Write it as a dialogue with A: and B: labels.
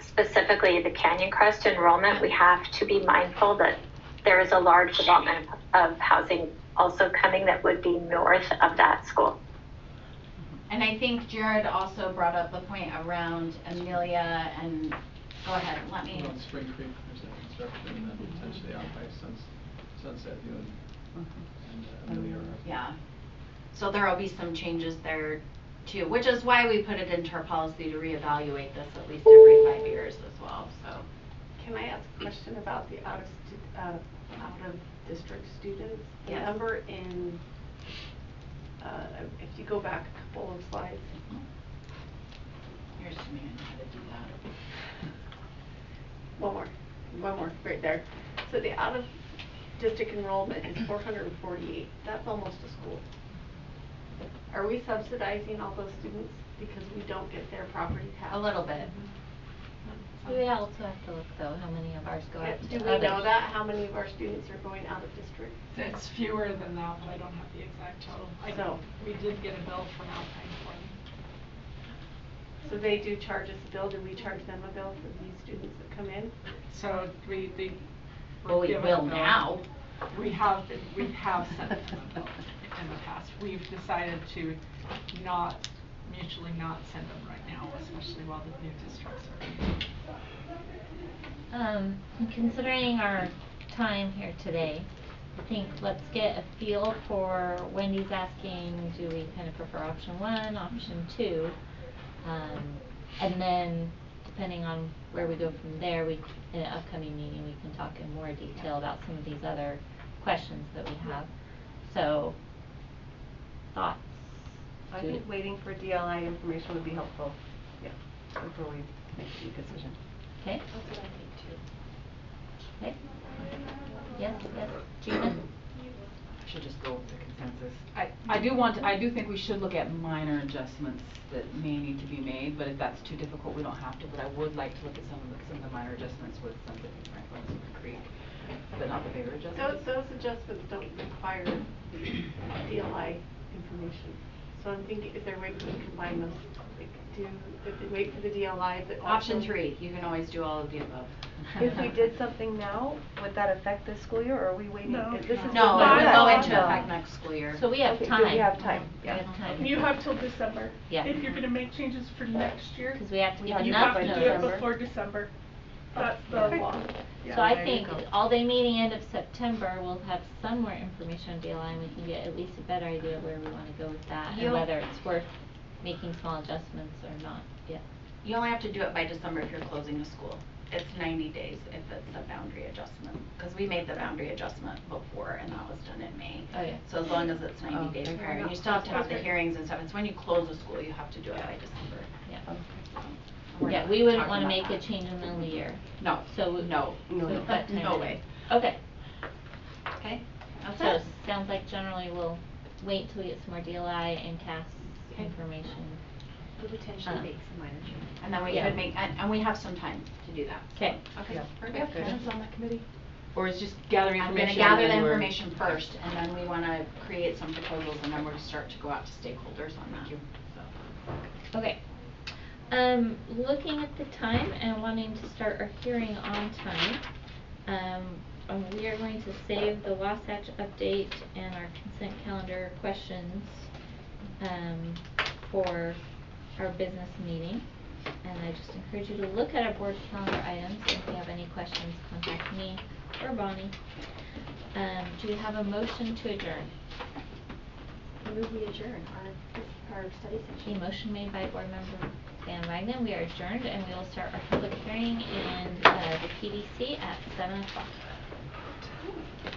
A: specifically the Canyon Crest enrollment, we have to be mindful that there is a large development of housing also coming that would be north of that school.
B: And I think Jared also brought up the point around Amelia and, go ahead, let me.
C: Well, on Spring Creek, there's that construction, and then potentially out by Suns- Sunset View and- and uh, Amelia.
B: Yeah. So there will be some changes there too, which is why we put it into our policy to reevaluate this at least every five years as well, so.
D: Can I ask a question about the out of, stu- out of, out of district students? The
B: Yes.
D: number in, uh, if you go back a couple of slides,
B: Here's to me and how to do
D: one more, one more, right there. So the out of district enrollment is four hundred and forty-eight, that's almost a school. Are we subsidizing all those students because we don't get their property tax?
B: that. A little bit.
E: We would also have to look though, how many of ours go
D: Uh,
E: out to
D: Do
E: others.
D: we know that, how many of our students are going out of district?
F: It's fewer than that, but I don't have the exact total. I
D: So-
F: We did get a bill for Alpine County.
D: So they do charge us a bill, do we charge them a bill for these students that come in?
F: So we, they. were
B: Well, Oh, we
F: given a
B: will
F: bill.
B: now.
F: We have, been- we have sent them a bill in the past. We've decided to not, mutually not send them right now, especially while the new districts are.
E: Um, considering our time here today, I think let's get a feel for Wendy's asking, do we kind of prefer option one, option two? Um, and then depending on where we go from there, we, in an upcoming meeting, we can talk in more detail about some of these other questions that we have. So, thoughts?
G: I
E: Do-
G: think waiting for DLI information would be helpful, yeah, before we make the decision.
E: Okay? Okay? Yes, yes, Gina?
H: I should just go with the consensus.
I: I, I do want, I do think we should look at minor adjustments that may need to be made, but if that's too difficult, we don't have to. But I would like to look at some of the, some of the minor adjustments with Sunset and Franklin and Spring Creek, but not the bigger
D: Those,
I: adjustments.
D: those adjustments don't require DLI information. So I'm thinking, is there a way we can combine those? Like, Do, if we wait for the DLI, but also.
B: Option three, you can always do all of the above.
G: If we did something now, would that affect this school year, or are we waiting?
F: No.
G: This is
B: No,
G: the
B: it would go
G: bylaw.
B: into effect next school year.
E: So we have
G: Okay, do
E: time.
G: we have time?
E: We have time.
J: You have till December.
E: Yeah.
J: If you're gonna make changes for next year,
E: Because we have to
G: We
E: give
G: have
J: you
E: enough
J: have
G: by
J: to
E: notice.
J: do it before December. That's the law.
E: So I think all-day meeting end of September, we'll have some more information on DLI, and we can get at least a better idea where we want to go with that, and
B: You'll-
E: whether it's worth making small adjustments or not, yeah.
B: You only have to do it by December if you're closing a school. It's 90 days if it's a boundary adjustment, because we made the boundary adjustment before, and that was done in May.
E: Oh, yeah.
B: So as long as it's
I: Oh,
B: 90 days
I: okay.
B: prior, and you still have to have the hearings and stuff. It's when you close a school, you have to do it by December.
E: Yeah,
G: Okay.
B: We're
E: yeah,
B: not
E: we wouldn't
B: talking
E: want to
B: about
E: make a
B: that.
E: change in the middle of the year.
B: No,
E: So, we-
B: no.
E: so
G: No,
E: we've
G: no.
E: got time.
B: No
E: to-
B: way.
E: Okay,
B: Okay, that's
E: so
B: it.
E: sounds like generally we'll wait till we get some more DLI and CAS
B: Okay.
E: information. Um,
D: Potentially
E: make
D: some minor
B: And then we
E: Yeah.
B: could make, and, and we have some time to do that. so-
E: 'Kay.
B: Okay,
G: Yeah.
B: perfect.
G: Okay.
B: on that committee.
H: Or is just gathering
B: I'm gonna
H: information?
B: gather the information first, and then we wanna create some proposals, and then we're gonna start to go out to stakeholders on that.
E: Okay. Um, looking at the time and wanting to start our hearing on time, um, um, we are going to save the Wasatch update and our consent calendar questions, um, for our business meeting. And I just encourage you to look at our board calendar items, and if you have any questions, contact me or Bonnie. Um, do we have a motion to adjourn?
D: We adjourn our, our study
E: Okay, motion made by Board Member Van Wagner. We are adjourned and we will start our public hearing in uh, the PDC at seven o'clock.